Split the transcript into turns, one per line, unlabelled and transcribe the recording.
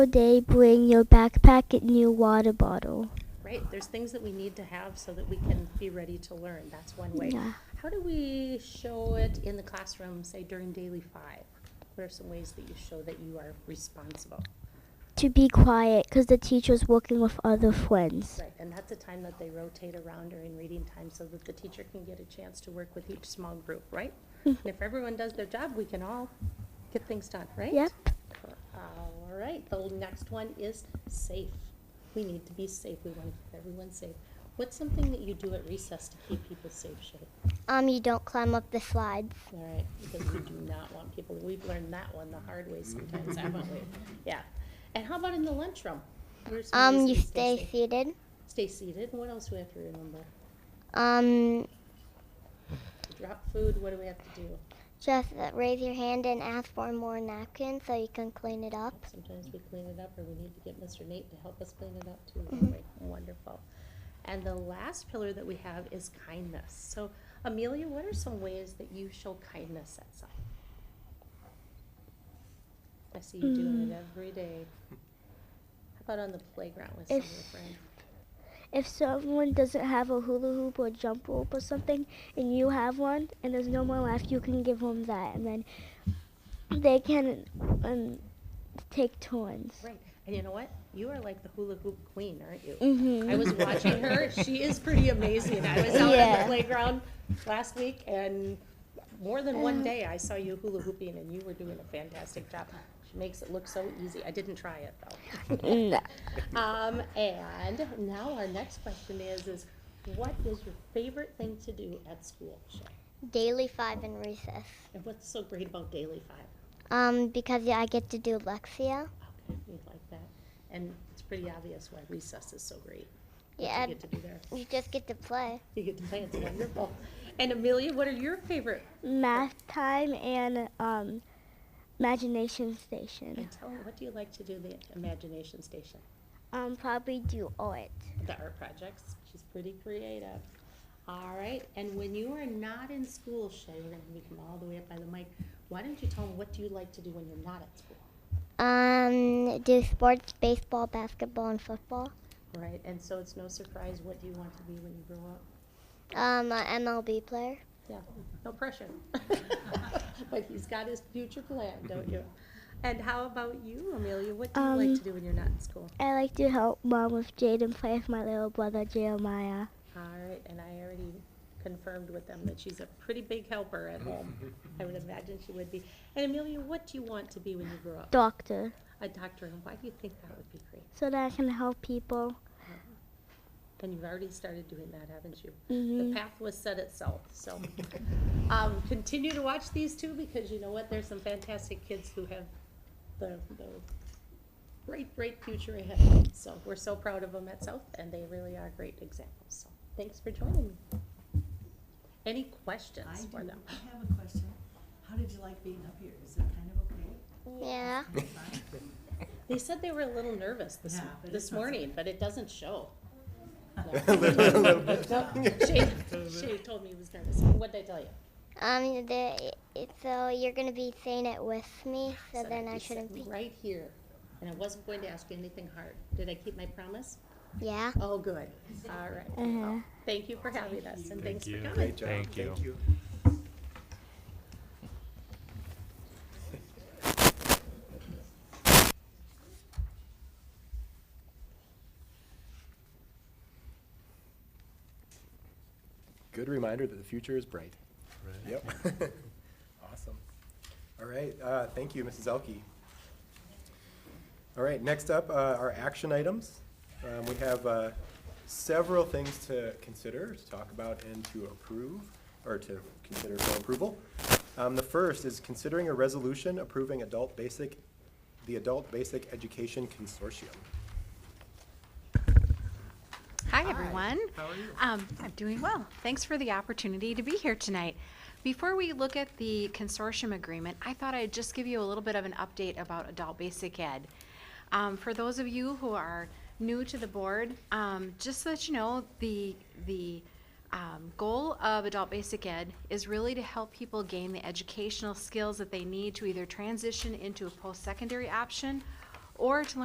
day bring your backpack and your water bottle.
Right, there's things that we need to have so that we can be ready to learn, that's one way.
Yeah.
How do we show it in the classroom, say during daily five? What are some ways that you show that you are responsible?
To be quiet because the teacher's working with other friends.
Right, and that's a time that they rotate around during reading time so that the teacher can get a chance to work with each small group, right?
Hmm.
And if everyone does their job, we can all get things done, right?
Yep.
All right, the next one is safe. We need to be safe, we want to keep everyone safe. What's something that you do at recess to keep people safe, Shay?
Um, you don't climb up the slides.
All right, because we do not want people, we've learned that one the hard way sometimes, haven't we? Yeah. And how about in the lunchroom? What are some ways
Um, you
that we
stay
safe?
seated.
Stay seated, what else do we have to remember?
Um,
Drop food, what do we have to do?
just uh, raise your hand and ask for more napkins so you can clean it up.
Sometimes we clean it up, or we need to get Mr. Nate to help us clean it up too. don't we? Wonderful. And the last pillar that we have is kindness. So Amelia, what are some ways that you show kindness at some? I see you doing it every day. How about on the playground with some of your
If-
friends?
If someone doesn't have a hula hoop or jump rope or something and you have one and there's no more left, you can give them that and then they can um, take turns.
Right. And you know what? You are like the hula hoop queen, aren't you?
Mhm.
I was watching her. She is pretty amazing. I was out on the
Yeah.
playground last week and more than one day I saw you hula hooping and you were doing a fantastic job. She makes it look so easy. I didn't try it though. Um, and now our next question is, is what is your favorite thing to do at school, Shay?
Daily five in recess.
And what's so great about Daily Five?
Um, because yeah, I get to do Lexia.
Okay, we like that. And it's pretty obvious why recess is so great.
Yeah,
You get to do there.
you just get to play.
You get to play, it's wonderful. And Amelia, what are your favorite?
Math time and um, imagination station.
And tell me, what do you like to do the imagination station?
Um, probably do art.
The art projects, she's pretty creative. All right, and when you are not in school, Shay, we're gonna move them all the way up by the mic. Why don't you tell them what do you like to do when you're not at school?
Um, do sports, baseball, basketball, and football.
All Right, and so it's no surprise, what do you want to be when you grow up?
Um, a MLB player.
Yeah, no pressure. But he's got his future plan, don't you? And how about you, Amelia? What do you like
Um,
to do when you're not in school?
I like to help mom with Jaden play with my little brother Jeremiah.
All right, and I already confirmed with them that she's a pretty big helper at home. I would imagine she would be. And Amelia, what do you want to be when you grow up?
Doctor,
A doctor, and why do you think that would be great?
so that I can help people.
And you've already started doing that, haven't you? The
Mhm.
path was set itself, so. Um, continue to watch these two, because you know what, there's some fantastic kids who have the, the great, great future ahead. So we're so proud of them at South, and they really are great examples, so thanks for joining me. Any
I
questions
do,
for them?
I have a question. How did you like being up here? Is it kind of okay?
Yeah.
Fine?
They said they were a little nervous this,
Yeah, but
this
it's not so
morning, but it doesn't show. Shay told me he was nervous. What did I tell you?
Um, the, it, so you're gonna be saying it with me, so
said
then
I'd
I
be sitting
shouldn't be.
Right here, and I wasn't going to ask you anything hard. Did I keep my promise?
Yeah.
Oh, good. All right.
Uh-huh.
Well, Thank you for having us, and thanks for coming.
Great job. Thank you. Good reminder that the future is bright. Yep. Awesome. All right, uh, thank you, Mrs. Elke. All right, next up uh, are action items. Um, We have uh, several things to consider, to talk about, and to approve, or to consider for approval. Um, The first is considering a resolution approving adult basic, the Adult Basic Education Consortium.
Hi, everyone. How are you? Um, I'm doing well. Thanks for the opportunity to be here tonight. Before we look at the consortium agreement, I thought I'd just give you a little bit of an update about adult basic ed. Um, for those of you who are new to the board, um, just so that you know, the the um, goal of adult basic ed is really to help people gain the educational skills that they need to either transition into a post-secondary option or to learn